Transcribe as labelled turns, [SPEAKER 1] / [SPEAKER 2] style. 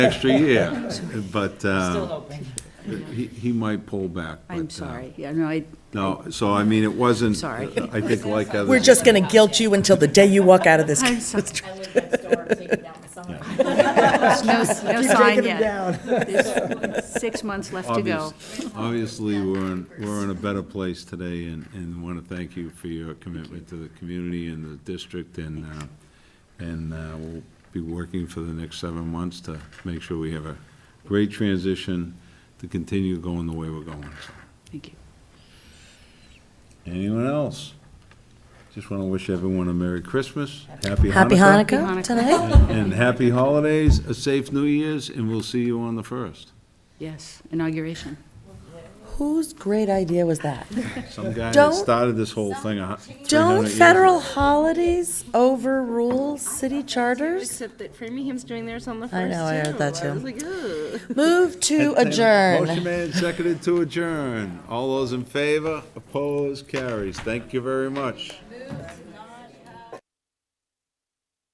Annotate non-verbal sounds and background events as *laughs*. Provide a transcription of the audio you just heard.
[SPEAKER 1] extra year, but
[SPEAKER 2] Still
[SPEAKER 1] uh,
[SPEAKER 2] hoping.
[SPEAKER 1] he he might pull back.
[SPEAKER 3] I'm
[SPEAKER 1] but, uh,
[SPEAKER 3] sorry, yeah,
[SPEAKER 1] *laughs*
[SPEAKER 3] no, I,
[SPEAKER 1] No, so I mean, it wasn't. uh,
[SPEAKER 3] Sorry.
[SPEAKER 1] I think like
[SPEAKER 3] *laughs*
[SPEAKER 1] others.
[SPEAKER 4] We're just going to guilt you until the day you walk out of this.
[SPEAKER 3] I'm sorry,
[SPEAKER 5] I live next door, take it down in the summer. *laughs*
[SPEAKER 3] no, no sign yet.
[SPEAKER 4] down.
[SPEAKER 3] There's Six months left to go.
[SPEAKER 1] uh, Obvious- Obviously, we're in, we're in a better place today, and, and want to thank you for your commitment to the community and the district, and, uh, and uh, we'll be working for the next seven months to make sure we have a great transition to continue going the way we're going. So,
[SPEAKER 3] Thank you.
[SPEAKER 1] Anyone else? Just want to wish everyone a Merry Christmas, Happy Hanukkah.
[SPEAKER 4] Happy Hanukkah
[SPEAKER 3] Hanukkah.
[SPEAKER 4] tonight.
[SPEAKER 1] And happy holidays, a safe New Year's, and we'll see you on the first.
[SPEAKER 3] Yes, inauguration.
[SPEAKER 4] Whose great idea was that?
[SPEAKER 1] Some guy that
[SPEAKER 4] Don't-
[SPEAKER 1] started this whole thing. a hu- 300
[SPEAKER 4] Don't
[SPEAKER 1] years
[SPEAKER 4] federal
[SPEAKER 1] ago.
[SPEAKER 4] holidays overrule city charters?
[SPEAKER 6] Except that Framingham's doing theirs on the first.
[SPEAKER 4] I know, I heard
[SPEAKER 6] too.
[SPEAKER 4] that
[SPEAKER 6] I
[SPEAKER 4] too.
[SPEAKER 6] was like, ugh.
[SPEAKER 4] Move to
[SPEAKER 1] Motion
[SPEAKER 4] adjourn.
[SPEAKER 1] made, and seconded to adjourn. All those in favor, opposed, carries. Thank you very much.